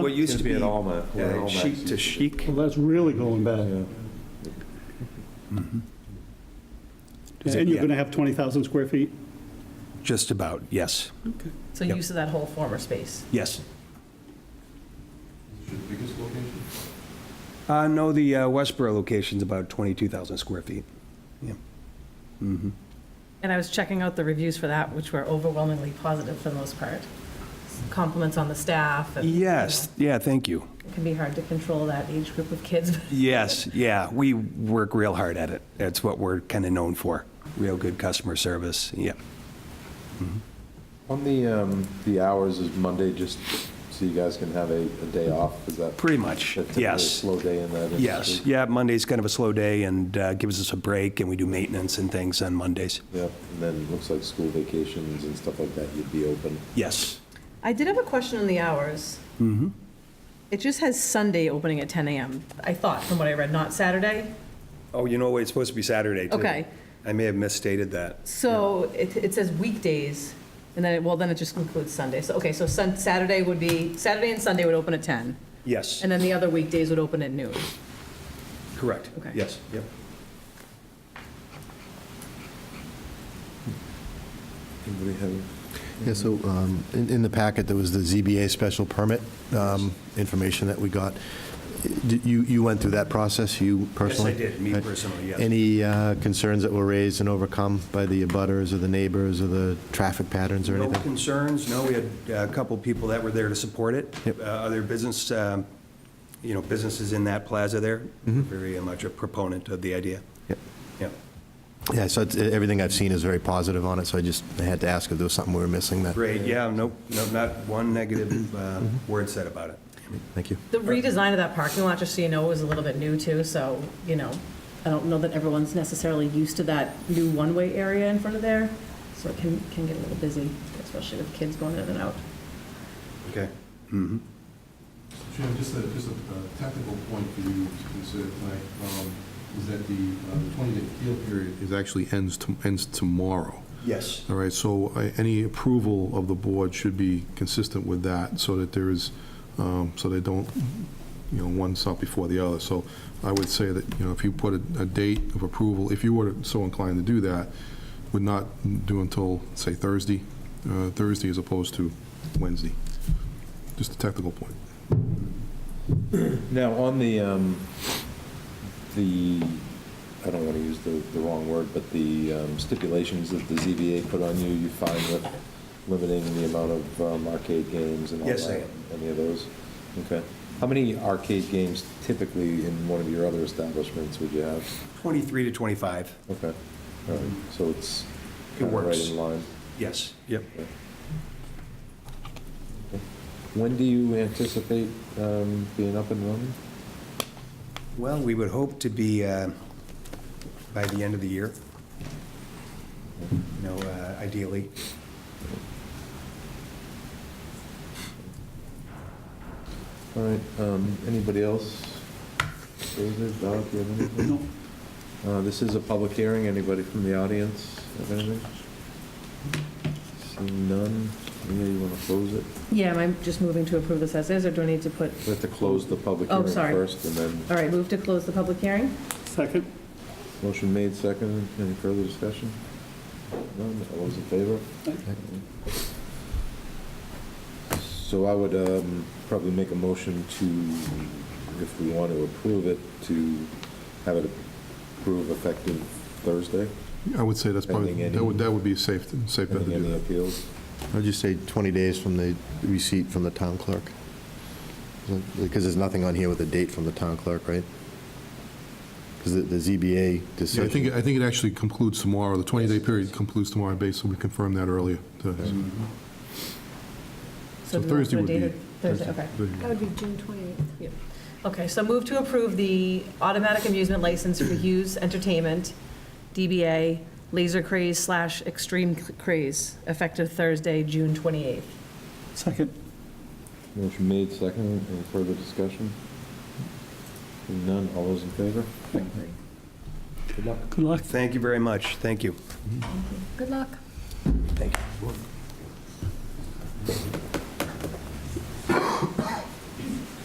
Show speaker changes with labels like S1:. S1: What used
S2: Gonna
S1: to be
S2: be at Alma, where
S1: uh,
S2: Alma
S1: chic to
S2: used to
S1: chic.
S3: Well, that's really going back.
S2: Yeah.
S4: Is it-
S3: And you're
S4: yeah.
S3: going to have 20,000 square feet?
S4: Just about, yes,
S5: So
S4: Yep.
S5: use of that whole former space.
S4: yes. Uh, no, the uh, Westboro location's about 22,000 square feet.
S5: And I was checking out the reviews for that, which were overwhelmingly positive for the most part. Compliments on the staff. and, you
S4: Yes, yeah, thank you.
S5: know, It can be hard to control that age group of kids.
S4: Yes, yeah, we work real hard at it. That's what we're kind of known for, real good customer service, yeah.
S2: On the, um, the hours is Monday, just so you guys can have a, a day off, is that?
S4: Pretty much,
S2: that typically a
S4: yes.
S2: Slow day in that industry?
S4: Yes, yeah, Monday's kind of a slow day and uh, gives us a break, and we do maintenance and things on Mondays.
S2: Yep, and then it looks like school vacations and stuff like that, you'd be open.
S4: Yes.
S5: I did have a question on the hours. Mm-hmm. It just has Sunday opening at 10 AM, I thought, from what I read, not Saturday.
S4: Oh, you know what, it's supposed to be Saturday, too.
S5: Okay.
S4: I may have misstated that.
S5: So it, it says weekdays, and then, it well, then it just includes Sunday. So, okay, so Sun, Saturday would be, Saturday and Sunday would open at 10,
S4: Yes,
S5: and then the other weekdays would open at noon.
S4: correct.
S5: Okay.
S4: Yes, yep.
S2: Anybody have?
S6: Yeah, so um, in in the packet, there was the ZBA special permit um, information that we got. Did You you went through that process, you personally?
S4: did, me
S6: Right.
S4: personally, yes.
S6: Any uh, concerns that were raised and overcome by the abutters or the neighbors or the traffic patterns or
S4: No
S6: anything?
S4: concerns, no, we had uh, a couple people that were there to support it.
S6: Yep.
S4: Uh, Other business, um, you know, businesses in that plaza there,
S6: Mm-hmm.
S4: very uh, much a proponent of the idea.
S6: Yep.
S4: Yep.
S6: Yeah, so it's- everything I've seen is very positive on it, so I just I had to ask if there was something we were missing that.
S4: Great, yeah, no, no, not one negative uh,
S6: Mm-hmm.
S4: word said about it.
S6: Thank you.
S5: The redesign of that parking lot, just so you know, was a little bit new too, so, you know, I don't know that everyone's necessarily used to that new one-way area in front of there, so it can, can get a little busy, especially with kids going in and out.
S4: Okay.
S7: Jim, just a, just a uh, technical point for you to consider tonight, um, is that the twenty-day appeal period is actually ends, to- ends tomorrow.
S4: Yes.
S7: All right, so uh, any approval of the board should be consistent with that, so that there is, um, so they don't, you know, one's up before the other. So I would say that, you know, if you put a, a date of approval, if you were so inclined to do that, would not do until, say, Thursday, uh, Thursday as opposed to Wednesday. Just a technical point.
S2: Now, on the, um, the, I don't want to use the, the wrong word, but the um, stipulations that the ZBA put on you, you find with limiting the amount of um, arcade games and all that?
S4: Yes, I am.
S2: Any of those? Okay. How many arcade games typically in one of your other establishments would you have?
S4: 23 to 25,
S2: Okay, all right, so it's
S4: It
S2: kind of right
S4: works.
S2: in line.
S4: yes. Yep.
S2: When do you anticipate um, being up and running?
S4: Well, we would hope to be uh, by the end of the year. You know, uh, ideally.
S2: All right, um, anybody else? David, Doc, you have anything? Uh, This is a public hearing, anybody from the audience have anything? Seeing none, Leah, you want to close it?
S5: Yeah, am I just moving to approve this as is, or do I need to put,
S2: We have to close the public
S5: Oh,
S2: hearing
S5: sorry.
S2: first, and then,
S5: all right, move to close the public hearing?
S3: Second?
S2: motion made, second, any further discussion? None, all those in favor? So I would um, probably make a motion to, if we want to approve it, to have it approve effective Thursday,
S7: I would say that's probably,
S2: Pending
S7: that would,
S2: any-
S7: that would be safe, safe bet to
S2: pending
S7: do
S2: any
S7: that.
S2: appeals.
S6: I'll just say 20 days from the receipt from the town clerk, because there's nothing on here with a date from the town clerk, right? Because the ZBA
S7: Yeah,
S6: decision.
S7: I think, I think it actually concludes tomorrow, the 20-day period concludes tomorrow, basically, we confirmed that earlier. So
S5: do we want to put
S7: Thursday
S5: a
S7: would
S5: date
S7: be.
S5: of- Thursday, okay.
S7: Thursday.
S8: That would be June 28th.
S5: Okay, so move to approve the automatic amusement license for Hughes Entertainment, DBA Laser Craze slash Extreme Craze, effective Thursday, June 28th.
S3: Second?
S2: Motion made, second, any further discussion? Seeing None, all those in favor?
S3: Good luck.
S4: Thank you very much, thank you.
S8: Good luck.
S4: Thank you.